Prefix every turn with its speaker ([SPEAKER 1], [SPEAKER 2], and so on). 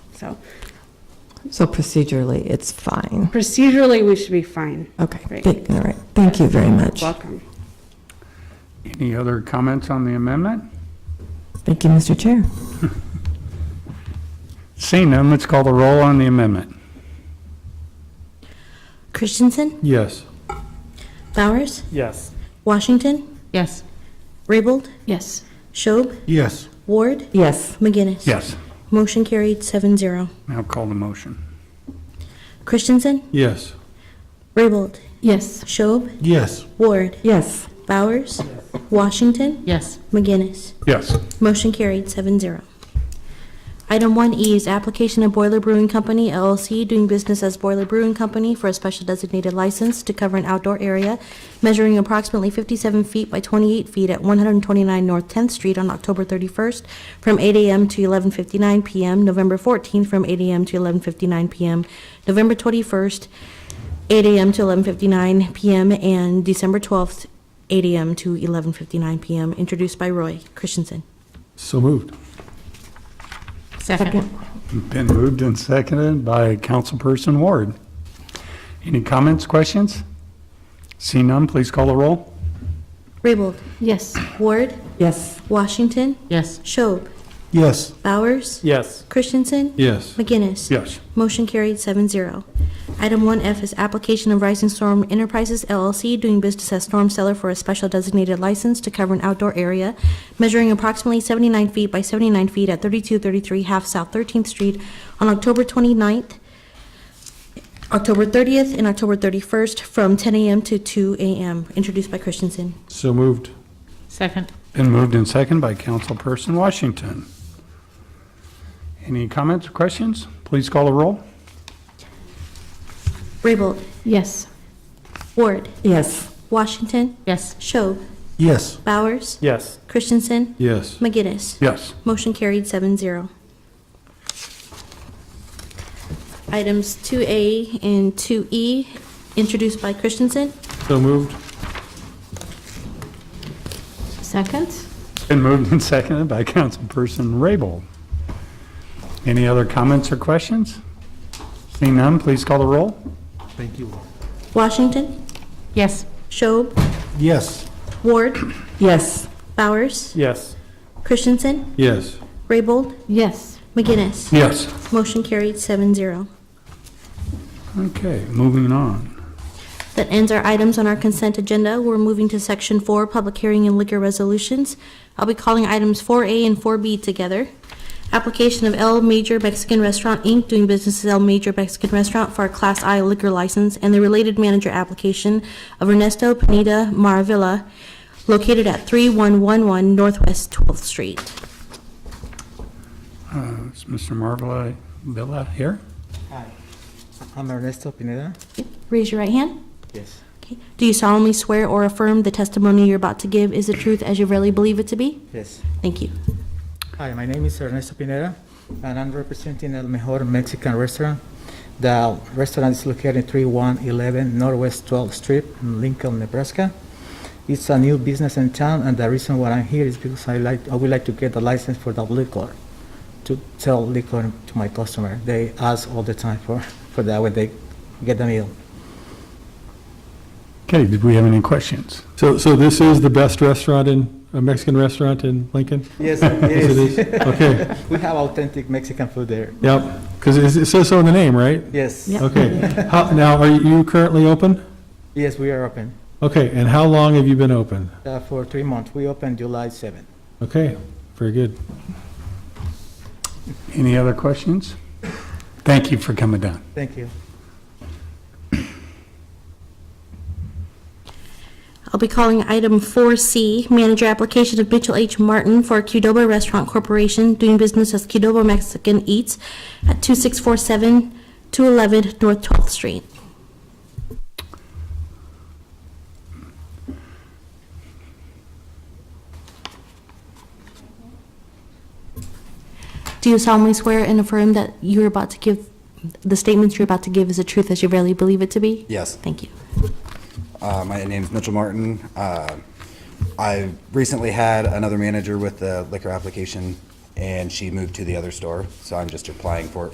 [SPEAKER 1] So
[SPEAKER 2] So procedurally, it's fine.
[SPEAKER 1] procedurally, we should be fine.
[SPEAKER 2] Okay,
[SPEAKER 1] Right.
[SPEAKER 2] thank- all right, thank you very much.
[SPEAKER 1] Welcome.
[SPEAKER 3] Any other comments on the amendment?
[SPEAKER 2] Thank you, Mr. Chair.
[SPEAKER 3] Seeing none, let's call the roll on the amendment.
[SPEAKER 4] Christensen,
[SPEAKER 3] Yes.
[SPEAKER 4] Bowers,
[SPEAKER 3] Yes.
[SPEAKER 4] Washington,
[SPEAKER 5] Yes.
[SPEAKER 4] Raybold,
[SPEAKER 5] Yes.
[SPEAKER 4] Schob,
[SPEAKER 3] Yes.
[SPEAKER 4] Ward,
[SPEAKER 2] Yes,
[SPEAKER 4] McGinnis.
[SPEAKER 3] Yes.
[SPEAKER 4] Motion carried seven zero.
[SPEAKER 3] Now call the motion.
[SPEAKER 4] Christensen,
[SPEAKER 3] Yes.
[SPEAKER 4] Raybold,
[SPEAKER 5] Yes.
[SPEAKER 4] Schob,
[SPEAKER 3] Yes.
[SPEAKER 4] Ward,
[SPEAKER 2] yes,
[SPEAKER 4] Bowers, Washington,
[SPEAKER 5] Yes.
[SPEAKER 4] McGinnis.
[SPEAKER 3] Yes.
[SPEAKER 4] Motion carried seven zero. Item one E is application of Boiler Brewing Company LLC doing business as Boiler Brewing Company for a special designated license to cover an outdoor area measuring approximately fifty-seven feet by twenty-eight feet at one hundred and twenty-nine North Tenth Street on October thirty-first from eight AM to eleven fifty-nine PM, November fourteenth from eight AM to eleven fifty-nine PM, November twenty-first, eight AM to eleven fifty-nine PM, and December twelfth, eight AM to eleven fifty-nine PM, introduced by Roy Christensen.
[SPEAKER 3] So moved.
[SPEAKER 5] Second.
[SPEAKER 3] Been moved and seconded by Councilperson Ward. Any comments, questions? Seeing none, please call the roll.
[SPEAKER 4] Raybold,
[SPEAKER 5] Yes.
[SPEAKER 4] Ward,
[SPEAKER 2] yes,
[SPEAKER 4] Washington,
[SPEAKER 5] Yes.
[SPEAKER 4] Schob,
[SPEAKER 3] Yes.
[SPEAKER 4] Bowers,
[SPEAKER 3] Yes.
[SPEAKER 4] Christensen,
[SPEAKER 3] Yes.
[SPEAKER 4] McGinnis.
[SPEAKER 3] Yes.
[SPEAKER 4] Motion carried seven zero. Item one F is application of Rising Storm Enterprises LLC doing business as storm cellar for a special designated license to cover an outdoor area measuring approximately seventy-nine feet by seventy-nine feet at thirty-two thirty-three Half South Thirteenth Street on October 29th, October thirtieth, and October thirty-first from ten AM to two AM, introduced by Christensen.
[SPEAKER 3] So moved.
[SPEAKER 5] Second.
[SPEAKER 3] Been moved and seconded by Councilperson Washington. Any comments, questions? Please call the roll.
[SPEAKER 4] Raybold,
[SPEAKER 5] Yes.
[SPEAKER 4] Ward,
[SPEAKER 2] yes,
[SPEAKER 4] Washington,
[SPEAKER 5] Yes.
[SPEAKER 4] Schob,
[SPEAKER 3] Yes.
[SPEAKER 4] Bowers,
[SPEAKER 3] Yes.
[SPEAKER 4] Christensen,
[SPEAKER 3] Yes.
[SPEAKER 4] McGinnis.
[SPEAKER 3] Yes.
[SPEAKER 4] Motion carried seven zero. Items 2A and 2E, introduced by Christensen.
[SPEAKER 3] So moved.
[SPEAKER 5] Second.
[SPEAKER 3] Been moved and seconded by Councilperson Raybold. Any other comments or questions? Seeing none, please call the roll.
[SPEAKER 4] Washington,
[SPEAKER 5] Yes.
[SPEAKER 4] Schob,
[SPEAKER 3] Yes.
[SPEAKER 4] Ward,
[SPEAKER 2] yes,
[SPEAKER 4] Bowers,
[SPEAKER 3] Yes.
[SPEAKER 4] Christensen,
[SPEAKER 3] Yes.
[SPEAKER 4] Raybold,
[SPEAKER 5] Yes.
[SPEAKER 4] McGinnis.
[SPEAKER 3] Yes.
[SPEAKER 4] Motion carried seven zero.
[SPEAKER 3] Okay, moving on.
[SPEAKER 4] That ends our items on our consent agenda. We're moving to section four, public hearing and liquor resolutions. I'll be calling items four A and four B together. Application of El Major Mexican Restaurant, Inc., doing business as El Major Mexican Restaurant for a Class I liquor license and the related manager application of Ernesto Pineda Maravilla, located at three one one one Northwest Twelfth Street.
[SPEAKER 3] Uh, Is Mr. Marvella Villa here?
[SPEAKER 6] Hi, I'm Ernesto Pineda.
[SPEAKER 4] Raise your right hand.
[SPEAKER 6] Yes.
[SPEAKER 4] Okay. Do you solemnly swear or affirm the testimony you're about to give is the truth as you really believe it to be?
[SPEAKER 6] Yes.
[SPEAKER 4] Thank you.
[SPEAKER 6] Hi, my name is Ernesto Pineda, and I'm representing El Mejor Mexican Restaurant. The restaurant is located at 3111 Northwest 12th Street in Lincoln, Nebraska. It's a new business in town, and the reason why I'm here is because I like, I would like to get a license for the liquor, to sell liquor to my customer. They ask all the time for, for that when they get the meal.
[SPEAKER 3] Okay, did we have any questions?
[SPEAKER 7] So, so this is the best restaurant in, a Mexican restaurant in Lincoln?
[SPEAKER 6] Yes, it
[SPEAKER 7] Yes,
[SPEAKER 6] is.
[SPEAKER 7] it is. Okay,
[SPEAKER 6] We have authentic Mexican food there.
[SPEAKER 7] yep, because it says so in the name, right?
[SPEAKER 6] Yes.
[SPEAKER 4] Yep.
[SPEAKER 7] Okay. How- Now, are you currently open?
[SPEAKER 6] Yes, we are open.
[SPEAKER 7] Okay, and how long have you been open?
[SPEAKER 6] Uh, for three months. We open July 7th.
[SPEAKER 7] Okay, very good.
[SPEAKER 3] Any other questions? Thank you for coming down.
[SPEAKER 6] Thank you.
[SPEAKER 4] I'll be calling item 4C, manager application of Mitchell H. Martin for Qdoba Restaurant Corporation, doing business as Qdoba Mexican Eats at 2647 211 North 12th Street. Do you solemnly swear and affirm that you're about to give, the statements you're about to give is the truth as you really believe it to be?
[SPEAKER 8] Yes.
[SPEAKER 4] Thank you.
[SPEAKER 8] Uh, My name is Mitchell Martin. Uh, I recently had another manager with the liquor application, and she moved to the other store, so I'm just applying for it